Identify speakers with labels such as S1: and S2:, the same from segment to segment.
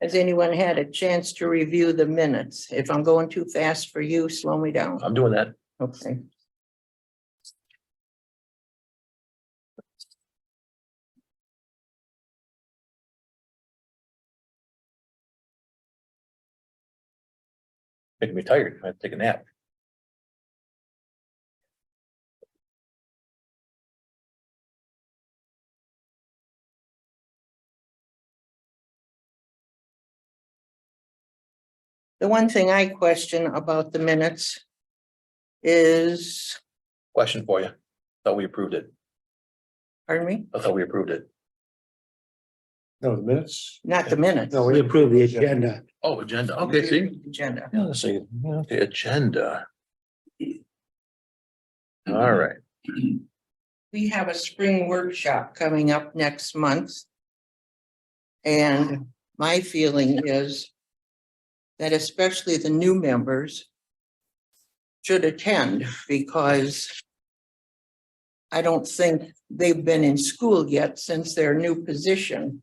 S1: Has anyone had a chance to review the minutes? If I'm going too fast for you, slow me down.
S2: I'm doing that.
S1: Okay.
S2: Making me tired. I have to take a nap.
S1: The one thing I question about the minutes is,
S2: Question for you. Thought we approved it.
S1: pardon me,
S2: I thought we approved it.
S3: No, the minutes?
S1: not the minutes.
S3: No,
S4: We approve the agenda.
S2: Oh, agenda. Okay, see?
S1: Agenda.
S2: Yeah, let's see. Okay, agenda. All right.
S1: We have a spring workshop coming up next month. And my feeling is that especially the new members should attend because I don't think they've been in school yet since their new position.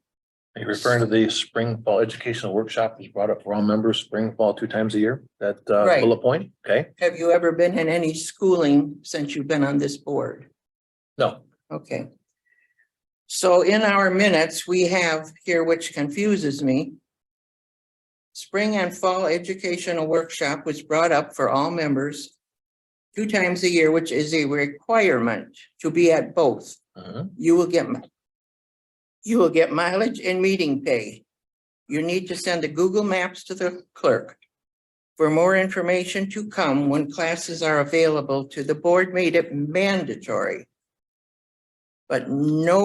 S2: Are you referring to the spring fall educational workshop that's brought up for all members, spring, fall, two times a year? That uh
S1: Right.
S2: bullet point? Okay,
S1: Have you ever been in any schooling since you've been on this board?
S2: no,
S1: Okay. So in our minutes, we have here, which confuses me. Spring and fall educational workshop was brought up for all members. Two times a year, which is a requirement to be at both.
S2: Mhm.
S1: You will get. mi- You will get mileage and meeting pay. You need to send the Google Maps to the clerk. For more information to come when classes are available to the board made it mandatory but no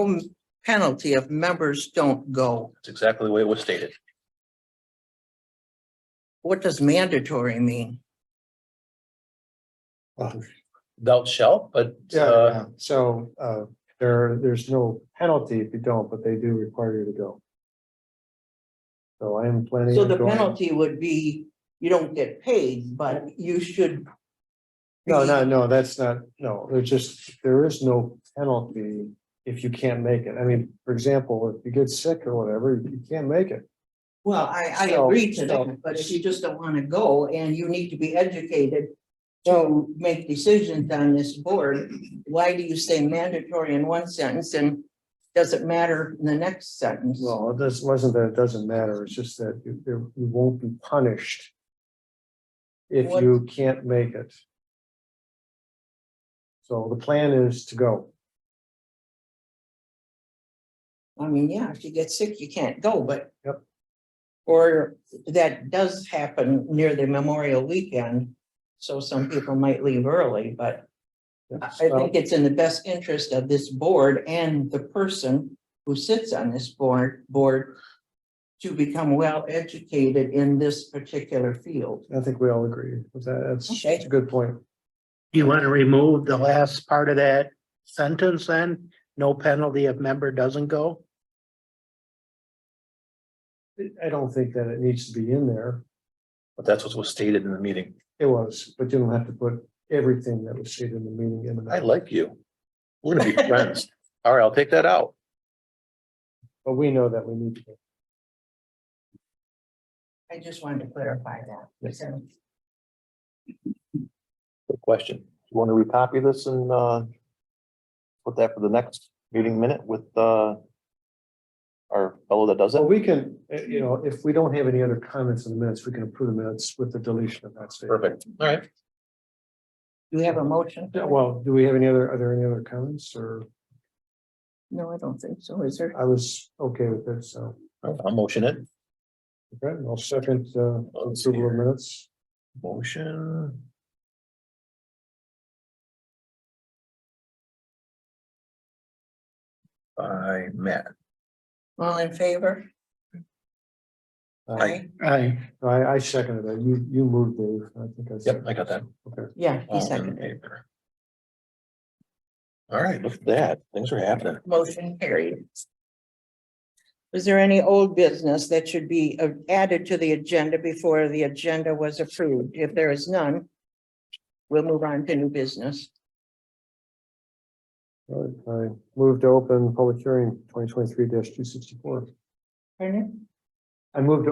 S1: penalty if members don't go.
S2: that's exactly the way it was stated.
S1: What does mandatory mean?
S3: Well,
S2: Thou shalt, but uh
S3: Yeah, so uh there, there's no penalty if you don't, but they do require you to go. So I am planning.
S1: So
S3: on
S1: the
S3: going.
S1: penalty would be you don't get paid, but you should.
S3: No, no,
S1: be-
S3: no, that's not, no, there's just, there is no penalty if you can't make it. I mean, for example, if you get sick or whatever, you can't make it.
S1: Well, I, I
S3: So-
S1: agree to
S3: so-
S1: that, but if you just don't want to go and you need to be educated to make decisions on this board, why do you say mandatory in one sentence and does it matter in the next sentence?
S3: Well, this wasn't that it doesn't matter, it's just that you, you you won't be punished if
S1: What-
S3: you can't make it. So the plan is to go.
S1: I mean, yeah, if you get sick, you can't go, but.
S3: Yep.
S1: Or that does happen near the Memorial Weekend, so some people might leave early, but I I think it's in the best interest of this board and the person who sits on this board, board to become well educated in this particular field.
S3: I think we all agree with that. That's
S1: Okay.
S3: that's a good point.
S4: Do you want to remove the last part of that sentence then? No penalty if member doesn't go?
S3: I don't think that it needs to be in there.
S2: but that's what was stated in the meeting.
S3: It was, but you don't have to put everything that was stated in the meeting in the.
S2: I
S3: minutes.
S2: like you. We're gonna be friends. All right, I'll take that out.
S3: But we know that we need to.
S1: I just wanted to clarify that.
S3: Yes.
S1: So,
S2: Good question. You want to recopy this and uh put that for the next meeting minute with uh our fellow that does it?
S3: So we can, eh, you know, if we don't have any other comments in the minutes, we can approve the minutes with the deletion of that statement.
S2: Perfect. All right.
S1: You have a motion?
S3: Yeah, Well, do we have any other, are there any other comments or
S1: No, I don't think so. Is there?
S3: I was okay with this, so.
S2: I'll motion it.
S3: Okay, I'll second uh
S2: Let's
S3: approval of minutes.
S2: Motion. By Matt.
S1: All in favor?
S3: Uh,
S4: Aye.
S3: I I seconded it. You you moved, Dave. I think I.
S2: Yep,
S3: seconded.
S2: I got that.
S3: Okay.
S1: Yeah, he
S2: All in
S1: seconded. it.
S2: favor. All right, look at that. Things are happening.
S1: Motion carried. Is there any old business that should be uh, added to the agenda before the agenda was approved? If there is none, we'll move on to new business.
S3: All right, I moved to open public hearing twenty twenty-three two sixty-four.
S1: Pardon?
S3: I moved to